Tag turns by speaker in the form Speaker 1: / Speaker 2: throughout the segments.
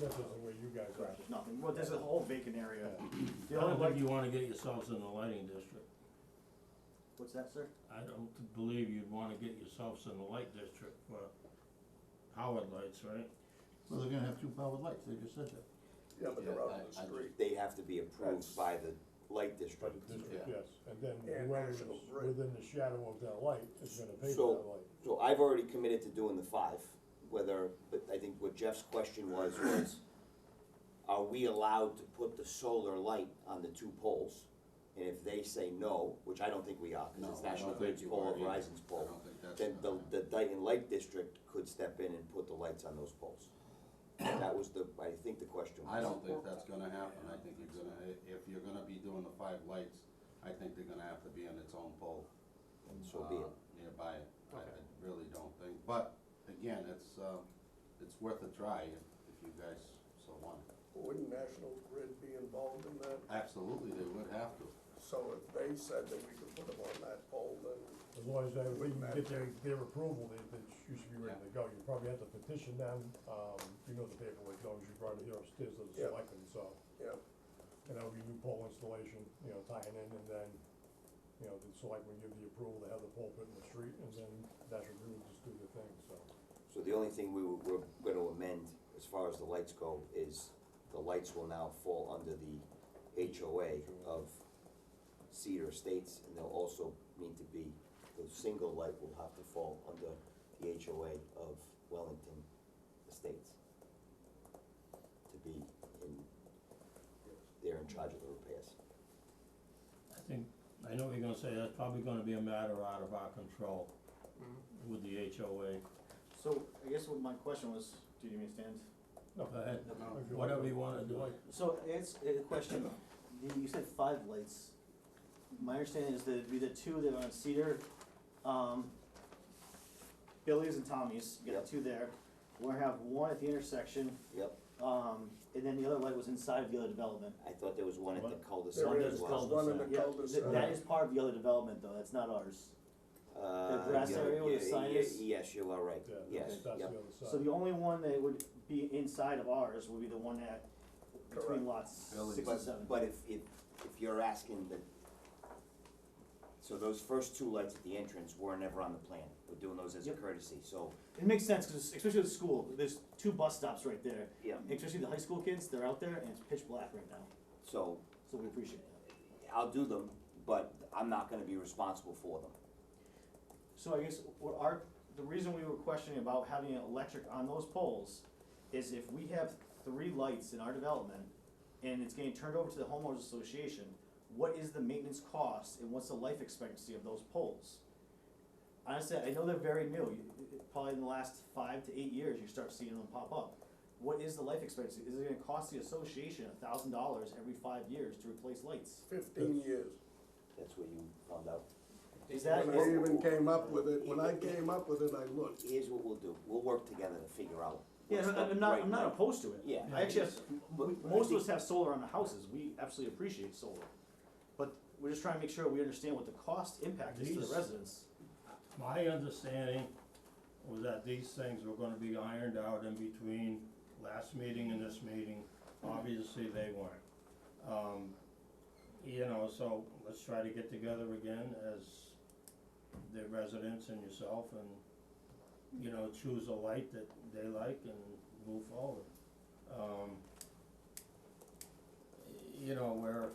Speaker 1: This is the way you guys are.
Speaker 2: Correct, there's nothing, well, there's a whole vacant area.
Speaker 3: I
Speaker 2: The
Speaker 3: don't
Speaker 2: only
Speaker 3: think
Speaker 2: light,
Speaker 3: you wanna get yourselves in the lighting district.
Speaker 2: what's that, sir?
Speaker 3: I don't believe you'd wanna get yourselves in the light district for powered lights, right?
Speaker 4: Well, they're gonna have two powered lights, they just said that.
Speaker 5: Yeah, but they're out in the
Speaker 6: I- I-
Speaker 5: street.
Speaker 6: They have to be approved by the light district.
Speaker 1: But this-
Speaker 6: Yeah.
Speaker 1: Yes, and then
Speaker 5: Yeah,
Speaker 1: whoever's
Speaker 5: National Grid.
Speaker 1: within the shadow of that light is gonna pay for that
Speaker 6: So,
Speaker 1: light.
Speaker 6: so I've already committed to doing the five, whether, but I think what Jeff's question was, was are we allowed to put the solar light on the two poles? And if they say no, which I don't think we are,
Speaker 5: No,
Speaker 6: because it's
Speaker 5: I don't
Speaker 6: National
Speaker 5: think
Speaker 6: Grid's
Speaker 5: you
Speaker 6: pole,
Speaker 5: are either.
Speaker 6: Verizon's
Speaker 5: I
Speaker 6: pole,
Speaker 5: don't think that's
Speaker 6: then the,
Speaker 5: gonna-
Speaker 6: the Dayton Light District could step in and put the lights on those poles. That was the, I think the question was.
Speaker 5: I don't think that's gonna happen, I think you're gonna, i- if you're gonna be doing the five lights, I think they're gonna have to be on its own pole.
Speaker 6: And so be
Speaker 5: uh,
Speaker 6: it.
Speaker 5: Nearby, I, I really don't think, but again, it's, uh, it's worth a try if, if you guys so want it.
Speaker 7: Wouldn't National Grid be involved in that?
Speaker 5: Absolutely, they would have to.
Speaker 7: So if they said that we could put them on that pole, then
Speaker 1: As long as they, we
Speaker 7: Wouldn't
Speaker 1: can
Speaker 7: matter.
Speaker 1: get their, their approval, they, they sh- you should be ready to go. You probably have to petition them, um, you know the paperwork, as long as you brought it here upstairs as
Speaker 7: Yeah.
Speaker 1: a selectman, so.
Speaker 7: yeah,
Speaker 1: And that'll be new pole installation, you know, tying in, and then, you know, the selectmen give the approval to have the pole put in the street, and then National Grid will just do the thing, so.
Speaker 6: So the only thing we were, we're gonna amend as far as the lights go is the lights will now fall under the HOA of Cedar Estates and they'll also need to be, the single light will have to fall under the HOA of Wellington Estates to be in, they're in charge of the repairs.
Speaker 3: I think, I know what you're gonna say, that's probably gonna be a matter out of our control with the HOA.
Speaker 2: So, I guess what my question was, do you understand?
Speaker 1: No,
Speaker 3: Go ahead,
Speaker 1: if you like.
Speaker 3: whatever you wanna do.
Speaker 2: So, it's a question, The- you said five lights. My understanding is that it'd be the two that are on Cedar, um, Billy's and Tommy's, you
Speaker 6: Yep.
Speaker 2: got two there. We're gonna have one at the intersection,
Speaker 6: Yep,
Speaker 2: um, and then the other light was inside of the other development.
Speaker 6: I thought there was one at the cul-de-sac
Speaker 7: there
Speaker 2: Sundays
Speaker 7: is,
Speaker 6: as
Speaker 7: there's
Speaker 6: well.
Speaker 7: one in the
Speaker 2: Yeah, th-
Speaker 7: cul-de-sac.
Speaker 2: that is part of the other development though, that's not ours.
Speaker 6: Uh,
Speaker 2: The grass
Speaker 6: yeah,
Speaker 2: area with the
Speaker 6: yeah,
Speaker 2: sign
Speaker 6: yeah,
Speaker 2: is?
Speaker 6: Yes, you are right,
Speaker 1: Yeah,
Speaker 6: yes,
Speaker 1: that's, that's the
Speaker 6: yep.
Speaker 1: other side.
Speaker 2: So the only one that would be inside of ours would be the one at,
Speaker 7: Correct.
Speaker 2: between lots
Speaker 5: Billy's.
Speaker 2: six and seven.
Speaker 6: But, but if, if, if you're asking that, so those first two lights at the entrance were never on the plan, we're doing those as a
Speaker 2: Yep.
Speaker 6: courtesy, so.
Speaker 2: It makes sense, cause especially with school, there's two bus stops right there.
Speaker 6: Yeah.
Speaker 2: Especially the high school kids, they're out there and it's pitch black right now,
Speaker 6: So,
Speaker 2: so we appreciate that.
Speaker 6: I'll do them, but I'm not gonna be responsible for them.
Speaker 2: So I guess what our, the reason we were questioning about having an electric on those poles is if we have three lights in our development and it's getting turned over to the homeowners association, what is the maintenance cost and what's the life expectancy of those poles? Honestly, I know they're very new, You- you- probably in the last five to eight years, you start seeing them pop up. What is the life expectancy? Is it gonna cost the association a thousand dollars every five years to replace lights?
Speaker 7: fifteen years.
Speaker 6: That's what you found out.
Speaker 2: Is that,
Speaker 7: When I
Speaker 2: is,
Speaker 7: even came up with it, when I came up with it, I looked.
Speaker 6: Here's what we'll do, we'll work together to figure out.
Speaker 2: yeah,
Speaker 6: what's
Speaker 2: I'm
Speaker 6: the
Speaker 2: I'm not,
Speaker 6: right
Speaker 2: I'm not
Speaker 6: light.
Speaker 2: opposed to it.
Speaker 6: Yeah.
Speaker 2: I actually have,
Speaker 6: But-
Speaker 2: we-
Speaker 6: but I
Speaker 2: most of
Speaker 6: think-
Speaker 2: us have solar on the houses, we absolutely appreciate solar. But we're just trying to make sure we understand what the cost impact is to
Speaker 3: These-
Speaker 2: the residents.
Speaker 3: My understanding was that these things were gonna be ironed out in between last meeting and this meeting. Obviously, they weren't. Um, you know, so let's try to get together again as the residents and yourself and, you know, choose a light that they like and move forward. Um, you know, where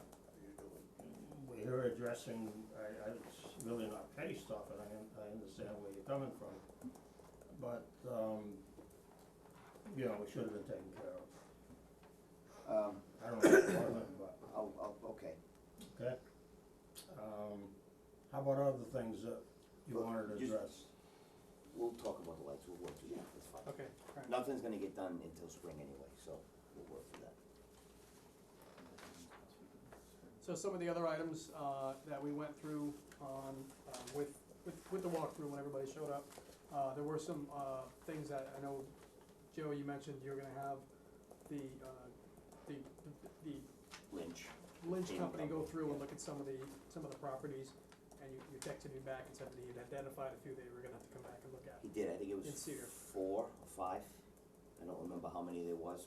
Speaker 3: we're addressing, I, I, it's really not petty stuff, and I, un- I understand where you're coming from. But, um, you know, it should have been taken care of.
Speaker 6: Um,
Speaker 3: I don't know if it wasn't, but,
Speaker 6: I'll, I'll, okay,
Speaker 3: okay? Um, how about other things that you
Speaker 6: Well,
Speaker 3: wanted
Speaker 6: just-
Speaker 3: addressed?
Speaker 6: we'll talk about the lights, we'll work through that, that's fine.
Speaker 2: Okay.
Speaker 6: Nothing's gonna get done until spring anyway, so we'll work through that.
Speaker 8: So some of the other items uh, that we went through on, uh, with, with, with the walkthrough when everybody showed up, uh, there were some uh, things that I know, Joe, you mentioned you're gonna have the, uh, the, the
Speaker 6: Lynch.
Speaker 8: Lynch
Speaker 6: Game
Speaker 8: company go
Speaker 6: company,
Speaker 8: through
Speaker 6: yeah.
Speaker 8: and look at some of the, some of the properties, and you, you texted me back and said that you'd identified a few that you were gonna have to come back and look at.
Speaker 6: He did, I think it
Speaker 8: In
Speaker 6: was
Speaker 8: Cedar.
Speaker 6: four or five, I don't remember how many there was,